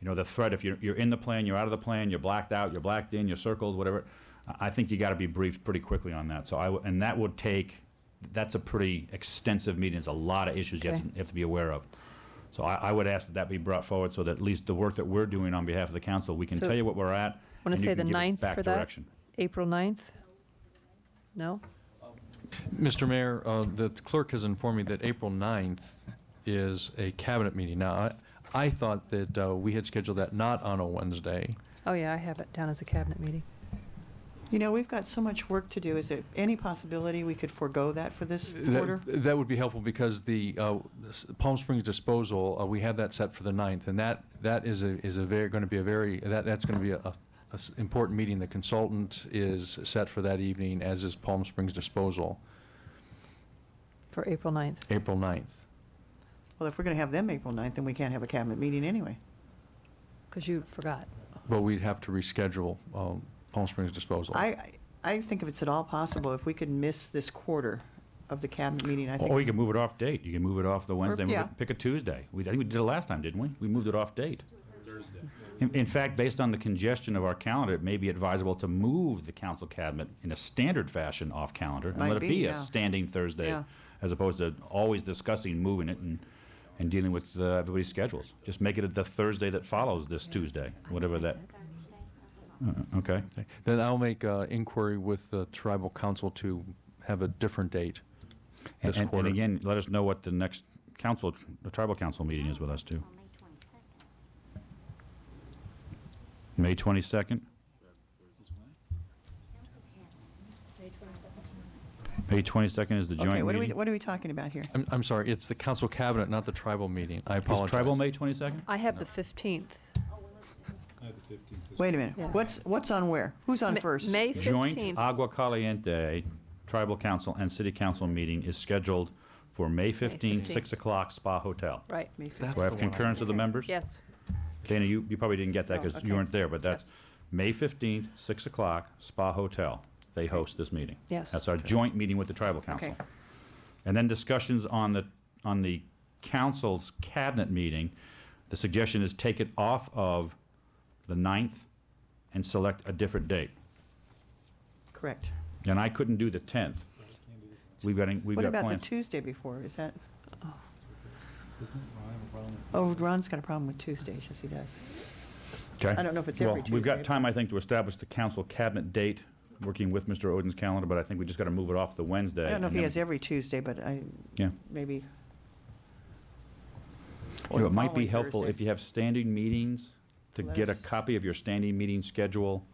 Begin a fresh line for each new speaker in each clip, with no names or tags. you know, the threat, if you're, you're in the plan, you're out of the plan, you're blacked out, you're blacked in, you're circled, whatever, I, I think you gotta be briefed pretty quickly on that. So I, w- and that would take, that's a pretty extensive meeting, there's a lot of issues you have to,
Okay.
you have to be aware of. So I, I would ask that that be brought forward so that at least the work that we're doing on behalf of the council, we can
So-
tell you what we're at. and
Want to
you
say
can
the
give us
9th
back
for that?
direction.
April 9th? No?
Mr. Mayor, uh, the clerk has informed me that April 9th is a cabinet meeting. Now, I I thought that uh, we had scheduled that not on a Wednesday.
Oh, yeah, I have it down as a cabinet meeting.
You know, we've got so much work to do. Is there any possibility we could forego that for this quarter?
That that would be helpful because the uh, s- Palm Springs disposal, uh, we have that set for the 9th, and that, that is a, is a very, going to be a very, that, that's going to be a, a s- important meeting. The consultant is set for that evening, as is Palm Springs disposal,
For April 9th.
April 9th.
Well, if we're going to have them April 9th, then we can't have a cabinet meeting anyway.
Because you forgot.
But we'd have to reschedule um, Palm Springs disposal.
I, I think if it's at all possible, if we could miss this quarter of the cabinet meeting, I
Or you
think,
can move it off date. You can move it off the Wednesday, move it-
yeah.
pick a Tuesday. We, I think we did it last time, didn't we? We moved it off date. In, in fact, based on the congestion of our calendar, it may be advisable to move the council cabinet in a standard fashion off calendar and
Might
let it
be,
be a
yeah.
standing Thursday
Yeah.
as opposed to always discussing moving it and, and dealing with uh, everybody's schedules. Just make it the Thursday that follows this Tuesday, whatever that, Uh, okay?
Then I'll make uh, inquiry with the tribal council to have a different date
And-
this
and-
quarter.
And again, let us know what the next council, the tribal council meeting is with us too. May 22nd? May 22nd is the
okay,
joint
what are we,
meeting?
what are we talking about here?
I'm, I'm sorry, it's the council cabinet, not the tribal meeting. I apologize.
Is tribal May 22nd?
I have the 15th.
Wait a minute.
Yeah.
What's, what's on where? Who's on
Ma-
first?
May
Joint
15th.
Agua Caliente Tribal Council and City Council meeting is scheduled for May 15,
15th.
6 o'clock, Spa Hotel.
Right,
May fif-
That's
Do I
the
have
one I-
concurrence of the members?
yes.
Dana, you, you probably didn't get that
Oh,
because you
okay.
weren't there, but that's
Yes.
May 15th, 6 o'clock, Spa Hotel. They host this meeting.
Yes.
That's our joint meeting with the tribal council.
Okay.
And then discussions on the, on the council's cabinet meeting. The suggestion is take it off of the 9th and select a different date.
Correct.
And I couldn't do the 10th. We've got, we've
What
got
about the
plans.
Tuesday before? Is that? Oh, Ron's got a problem with Tuesdays, yes, he does.
Okay.
I don't know if it's every
Well, We've got
Tuesday,
time, I think, to establish the council cabinet date, working with Mr. Odin's calendar, but I think we just got to move it off the Wednesday.
I don't know if
and
he
then-
has every Tuesday, but I,
Yeah.
maybe.
You know, It might be
Following
helpful
Thursday.
if you have standing meetings, to
Let
get a
us-
copy of your standing meeting schedule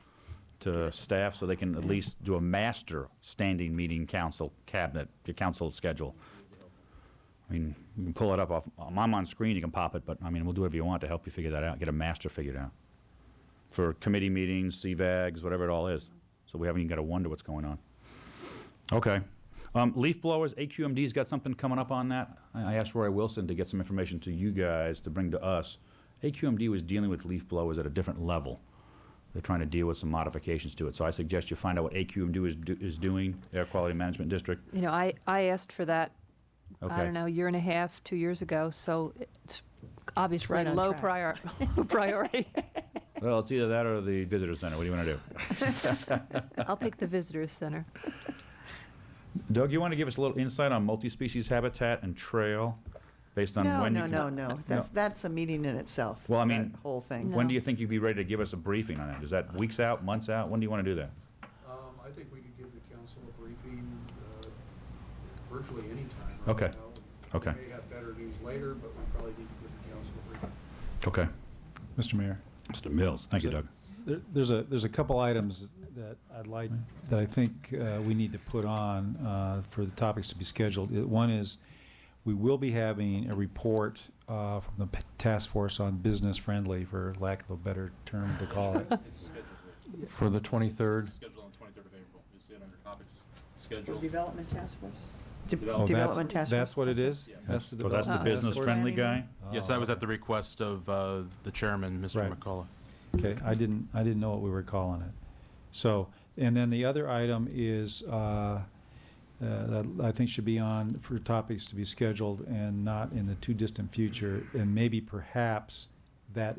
to staff, so they can at least do a master standing meeting council cabinet, your council schedule. I mean, you can pull it up off, um, I'm on screen, you can pop it, but, I mean, we'll do whatever you want to help you figure that out, get a master figured out. For committee meetings, CVAGs, whatever it all is, so we haven't even got to wonder what's going on. Okay. Um, leaf blowers, AQMD's got something coming up on that. I I asked Roy Wilson to get some information to you guys to bring to us. AQMD was dealing with leaf blowers at a different level. They're trying to deal with some modifications to it. So I suggest you find out what AQMD is, do- is doing, Air Quality Management District.
You know, I, I asked for that, I
Okay.
don't know, year and a half, two years ago, so it's obviously
on
low
track.
prior, low priority.
Well, it's either that or the visitor center. What do you want to do?
I'll pick the visitor center.
Doug, you want to give us a little insight on multi-species habitat and trail based on
No,
when you
no,
can-
no, no. That's, that's a meeting in itself.
Well, I mean-
That whole thing.
When
No.
do you think you'd be ready to give us a briefing on that? Is that weeks out, months out? When do you want to do that?
Um, I think we could give the council a briefing, uh, virtually any time. right
Okay.
now.
Okay.
We may have better news later, but we probably need to give the council a briefing.
Okay.
Mr. Mayor,
Mr. Mills, thank you, Doug.
there- there's a, there's a couple items that I'd like, that I think uh, we need to put on uh, for the topics to be scheduled. Uh, One is, we will be having a report uh, from the p- Task Force on Business Friendly, for lack of a better term to call it.
For the 23rd,
Scheduled on the twenty-third of April, you see it under topics,
The
schedule.
Development Task Force?
Oh, that's-
Development Task Force.
That's what it is?
Yes.
That's the
So Oh, that's the
Uh,
Development Task Force?
business-friendly guy?
Yes, that was at the request of uh, the chairman, Mr.
Right.
McCullough.
Okay, I didn't, I didn't know what we were calling it. So, and then the other item is, uh, uh, that I think should be on for topics to be scheduled and not in the too distant future, and maybe perhaps that